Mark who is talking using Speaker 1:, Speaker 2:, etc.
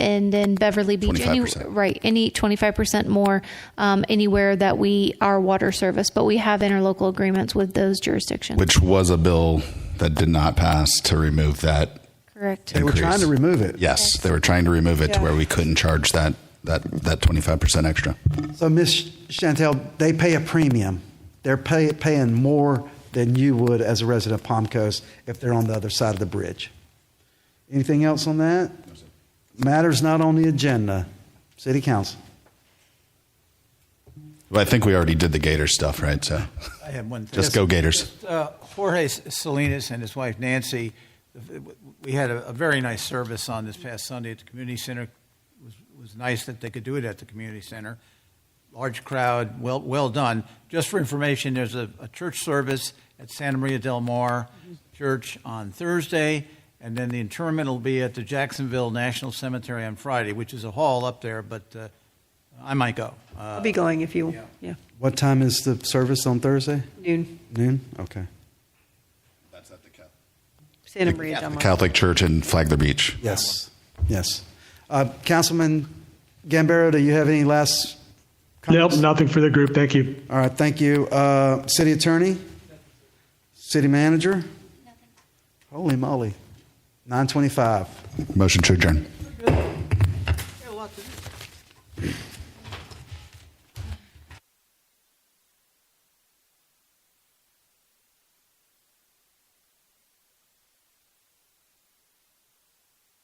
Speaker 1: and then Beverly Beach, any,
Speaker 2: 25%.
Speaker 1: right? Any twenty five percent more um, anywhere that we are water service, but we have interlocal agreements with those jurisdictions.
Speaker 2: which was a bill that did not pass to remove that.
Speaker 1: Correct.
Speaker 3: They were
Speaker 2: increase.
Speaker 3: trying to remove it.
Speaker 2: Yes, they were trying to remove it to
Speaker 3: Yeah.
Speaker 2: where we couldn't charge that that that twenty five percent extra.
Speaker 3: So Miss Chantel, they pay a premium. They're pay, paying more than you would as a resident of Palm Coast if they're on the other side of the bridge. Anything else on that? Matters not on the agenda. City Council.
Speaker 2: But I think we already did the Gator stuff, right? So
Speaker 4: I have one thing.
Speaker 2: just go Gators.
Speaker 4: Uh, Jorge Salinas and his wife Nancy, we had a, a very nice service on this past Sunday at the community center. It was, was nice that they could do it at the community center. Large crowd, well, well done. Just for information, there's a, a church service at Santa Maria del Mar Church on Thursday, and then the interment will be at the Jacksonville National Cemetery on Friday, which is a hall up there, but uh, I might go. Uh,
Speaker 5: I'll be going if you, yeah,
Speaker 3: What time is the service on Thursday?
Speaker 5: noon,
Speaker 3: Noon? Okay.
Speaker 2: That's at the
Speaker 5: Santa Maria Del Mar.
Speaker 2: Catholic Church in Flagler Beach.
Speaker 3: Yes. Yes. Uh, Councilman Gambaro, do you have any last
Speaker 6: Nope,
Speaker 3: comments?
Speaker 6: nothing for the group. Thank you.
Speaker 3: All right, thank you. Uh, City Attorney? City Manager? Holy moly. 925.
Speaker 2: Motion to adjourn.
Speaker 4: Got a lot to do.